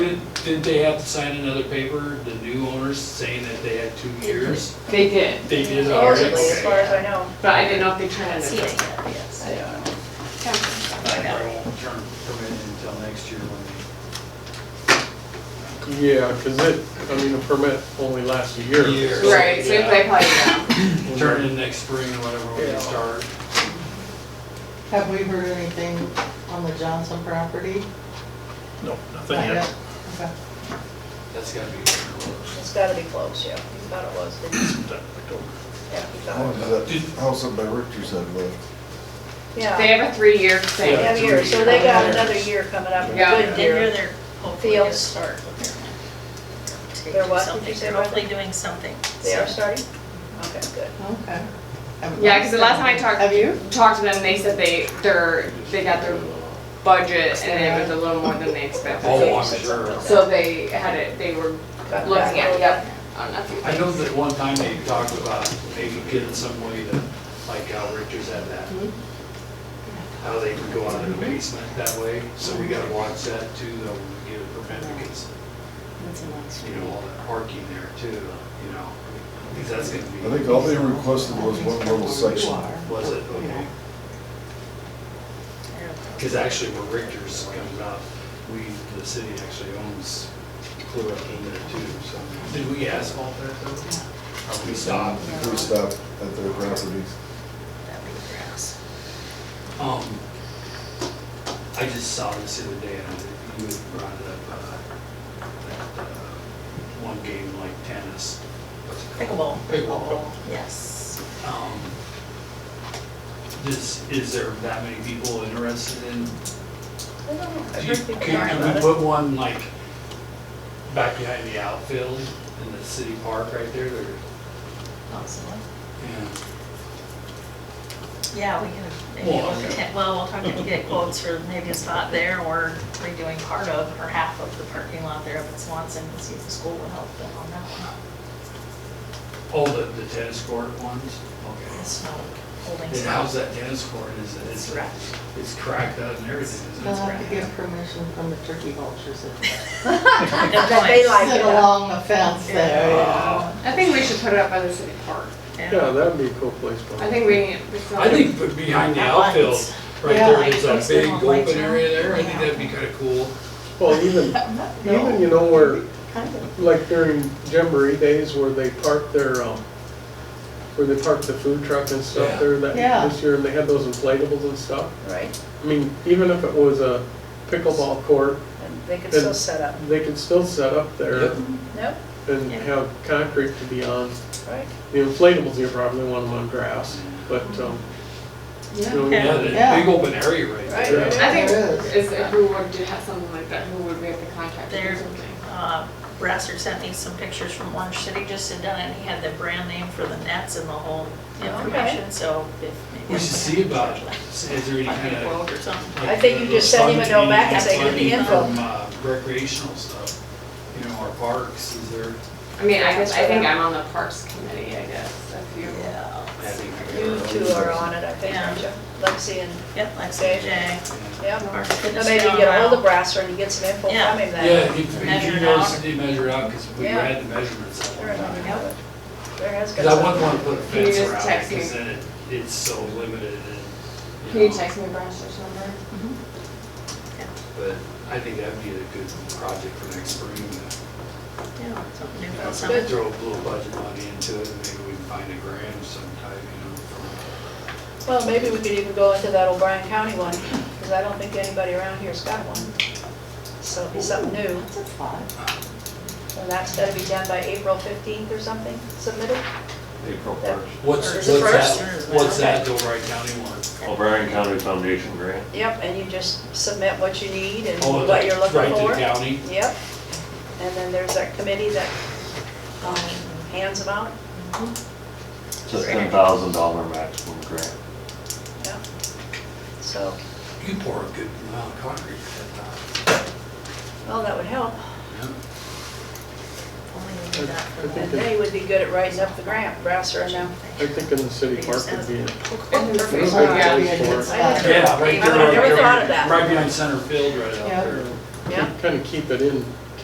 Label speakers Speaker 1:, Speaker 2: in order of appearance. Speaker 1: did they have to sign another paper, the new owners saying that they had two years?
Speaker 2: They did,
Speaker 1: They did already?
Speaker 3: Allegedly, as far as I know.
Speaker 2: but I didn't know if they turned
Speaker 3: See
Speaker 2: it
Speaker 3: it
Speaker 2: in.
Speaker 3: yet, yes.
Speaker 2: I don't know.
Speaker 1: I probably won't turn permit until next year when
Speaker 4: Yeah, because it, I mean, a permit only lasts a year.
Speaker 1: Year.
Speaker 2: Right, so they probably know.
Speaker 1: they turn in next spring or whatever when
Speaker 4: Yeah.
Speaker 1: they start.
Speaker 5: Have we heard anything on the Johnson property?
Speaker 6: No, nothing
Speaker 5: Not
Speaker 6: yet.
Speaker 5: Okay.
Speaker 1: That's gotta be.
Speaker 3: It's gotta be close, yeah. He thought it was, didn't he?
Speaker 6: That October.
Speaker 3: Yeah, he
Speaker 7: How
Speaker 3: thought
Speaker 7: long
Speaker 3: it
Speaker 7: does
Speaker 3: was.
Speaker 7: that house up by Richter's had left?
Speaker 2: They
Speaker 3: Yeah.
Speaker 2: have a three-year
Speaker 3: They
Speaker 2: thing.
Speaker 3: have
Speaker 1: Yeah,
Speaker 3: years, so
Speaker 1: three
Speaker 3: they got
Speaker 1: years.
Speaker 3: another year coming up, a
Speaker 2: Yeah.
Speaker 3: good year.
Speaker 8: they're hopefully
Speaker 3: Fields.
Speaker 8: gonna start.
Speaker 3: They're what? Did you
Speaker 8: Something,
Speaker 3: say
Speaker 8: they're
Speaker 3: what?
Speaker 8: hopefully doing something.
Speaker 3: They are
Speaker 8: So,
Speaker 3: starting? Okay, good.
Speaker 5: Okay. Haven't-
Speaker 2: Yeah, because the last time I
Speaker 5: Have
Speaker 2: talked,
Speaker 5: you?
Speaker 2: talked to them, they said they, they're, they got their budget and it was a little more than they expected.
Speaker 1: Oh, I'm sure.
Speaker 2: So they had it, they were
Speaker 3: Got
Speaker 2: looking
Speaker 3: that.
Speaker 2: at, yep, on a few
Speaker 1: I know
Speaker 2: things.
Speaker 1: that one time they talked about maybe getting some way to, like how Richards had that. How they could go out in the basement that way, so we gotta watch that too, though, when we get a permit, because, you know, all that parking there too, you know? Because that's gonna
Speaker 7: I
Speaker 1: be.
Speaker 7: think all they requested was one little section.
Speaker 1: Was it, okay? Because actually where Richards comes out, we, the city actually owns Clear Up in there too, so. Did we asphalt there though? Or we stopped?
Speaker 7: We stopped at their property.
Speaker 8: that'd be grass.
Speaker 1: Um, I just saw this the other day, and you had brought it up, uh, that, uh, one game like tennis. what's it
Speaker 8: Pickleball.
Speaker 1: called? Pickleball.
Speaker 8: Yes.
Speaker 1: Um, Does, is there that many people interested in,
Speaker 3: I don't know. I've
Speaker 1: do you-
Speaker 3: heard people talk
Speaker 1: can
Speaker 3: about
Speaker 1: we
Speaker 3: it.
Speaker 1: put one like back behind the outfield in the city park right there, or?
Speaker 8: Possibly.
Speaker 1: yeah.
Speaker 8: Yeah, we can, maybe
Speaker 1: Well,
Speaker 8: we'll,
Speaker 1: okay.
Speaker 8: get- well, we'll talk and get quotes for maybe a spot there or redoing part of or half of the parking lot there up at Swanson and see if the school will help them on that one.
Speaker 1: Oh, the, the tennis court ones? Okay.
Speaker 8: It's no holding
Speaker 1: Then
Speaker 8: spot.
Speaker 1: how's that tennis court, is it,
Speaker 8: It's
Speaker 1: it's,
Speaker 8: wrapped.
Speaker 1: it's cracked up and everything, isn't
Speaker 5: They'll
Speaker 1: it?
Speaker 5: have to get permission from the turkey vultures that
Speaker 3: That they like
Speaker 5: sit
Speaker 3: it.
Speaker 5: along the fence there.
Speaker 1: Uh,
Speaker 2: I think we should put it up by the city park.
Speaker 8: Yeah.
Speaker 4: Yeah, that'd be a cool place for it.
Speaker 2: I think we need.
Speaker 1: I think but behind the outfield, right
Speaker 5: Yeah,
Speaker 1: there,
Speaker 8: like
Speaker 1: there's
Speaker 8: those
Speaker 1: a big
Speaker 8: little lights
Speaker 1: open area there, I
Speaker 8: on.
Speaker 1: think that'd be kinda cool.
Speaker 4: Well, even, even, you know, where, like during Jamboree days where they park their, um, where they park the food truck and
Speaker 1: Yeah.
Speaker 4: stuff there that,
Speaker 5: Yeah.
Speaker 4: this year, and they had those inflatables and stuff.
Speaker 3: Right,
Speaker 4: I mean, even if it was a pickleball court,
Speaker 3: and they could still set up.
Speaker 4: they could still set up there
Speaker 1: Yep.
Speaker 3: Nope,
Speaker 4: and
Speaker 8: Yeah.
Speaker 4: have concrete to be on.
Speaker 3: right?
Speaker 4: The inflatables, you probably want them on grass, but, um, you know,
Speaker 8: Yeah.
Speaker 1: Yeah, the
Speaker 5: Yeah.
Speaker 1: big open area right
Speaker 3: Right,
Speaker 1: there.
Speaker 3: right,
Speaker 2: I think,
Speaker 5: There is.
Speaker 2: is, who would do have something like that, who would we have to contact or
Speaker 8: There.
Speaker 2: something?
Speaker 8: Uh, Brasser sent me some pictures from Orange City just had done it, and he had the brand name for the nets and the whole information, so if. maybe
Speaker 1: We should see about, it. is there any
Speaker 8: Find a
Speaker 1: kinda?
Speaker 8: quote or something.
Speaker 1: like,
Speaker 3: I think you
Speaker 1: those
Speaker 3: just send him a
Speaker 1: fun
Speaker 3: note back and say,
Speaker 1: community
Speaker 3: "Give me
Speaker 1: funding from, uh, Recreational stuff, you know, our parks, is there?
Speaker 2: I mean, I guess, I think I'm on the parks committee, I guess, if you.
Speaker 8: Yeah,
Speaker 1: I think
Speaker 3: You two
Speaker 1: there are-
Speaker 3: are on it, I think, aren't you? Lexi and,
Speaker 8: yep, like
Speaker 3: Okay.
Speaker 8: Jay.
Speaker 3: yeah.
Speaker 8: Or
Speaker 3: Now
Speaker 8: fitness
Speaker 3: Maybe you
Speaker 8: down
Speaker 3: get a hold of
Speaker 8: around.
Speaker 3: Brasser and you get some info from
Speaker 8: Yeah.
Speaker 3: him
Speaker 1: Yeah,
Speaker 3: then.
Speaker 1: he, he
Speaker 8: Measure it
Speaker 1: knows,
Speaker 8: out.
Speaker 1: he measured out, cause we
Speaker 3: Yeah.
Speaker 1: had the measurements at
Speaker 3: There
Speaker 1: one time.
Speaker 3: yep. There has got
Speaker 1: Because I wouldn't
Speaker 3: some.
Speaker 1: want to put a fence
Speaker 2: Can you just
Speaker 1: around it,
Speaker 2: text me?
Speaker 1: because then it, it's so limited and,
Speaker 2: Can
Speaker 1: you
Speaker 2: you
Speaker 1: know.
Speaker 2: text me Brasher's number?
Speaker 1: But I think that'd be a good project for next spring, to,
Speaker 8: Yeah, something new
Speaker 1: you
Speaker 8: about
Speaker 1: know,
Speaker 8: something.
Speaker 1: throw a little budget money into it, and maybe we can find a grant of some type, you know, from,
Speaker 3: Well, maybe we could even go into that O'Brien County one, because I don't think anybody around here's got one. So it'd be something new.
Speaker 5: That's a thought.
Speaker 3: And that's gotta be done by April 15th or something, submitted?
Speaker 9: April
Speaker 3: That-
Speaker 9: first.
Speaker 1: what's,
Speaker 3: Is
Speaker 1: what's
Speaker 3: it
Speaker 1: that,
Speaker 8: first?
Speaker 1: what's that Dover County one?
Speaker 9: O'Brien County Foundation grant.
Speaker 3: Yep, and you just submit what you need and
Speaker 1: Oh,
Speaker 3: what you're
Speaker 1: that's
Speaker 3: looking
Speaker 1: Right to the
Speaker 3: for.
Speaker 1: county?
Speaker 3: Yep. And then there's that committee that um, hands them out.
Speaker 9: It's a ten thousand dollar maximum grant.
Speaker 3: Yeah. So,
Speaker 1: You pour a good amount of concrete at
Speaker 3: well, that would help.
Speaker 1: that time.
Speaker 8: Only we did that for
Speaker 4: I
Speaker 8: the-
Speaker 3: And they would be good at writing up the grant, Brasser and them.
Speaker 4: I think in the city park would be a
Speaker 2: Perfect.
Speaker 4: It's a good
Speaker 2: Yeah.
Speaker 4: place for it.
Speaker 3: I
Speaker 1: Yeah, right
Speaker 3: I
Speaker 1: there.
Speaker 3: never
Speaker 1: right
Speaker 3: thought
Speaker 1: there,
Speaker 3: of that.
Speaker 1: Right behind center field, right out
Speaker 5: Yeah.
Speaker 1: there.
Speaker 3: Yeah.
Speaker 4: Kind of keep it in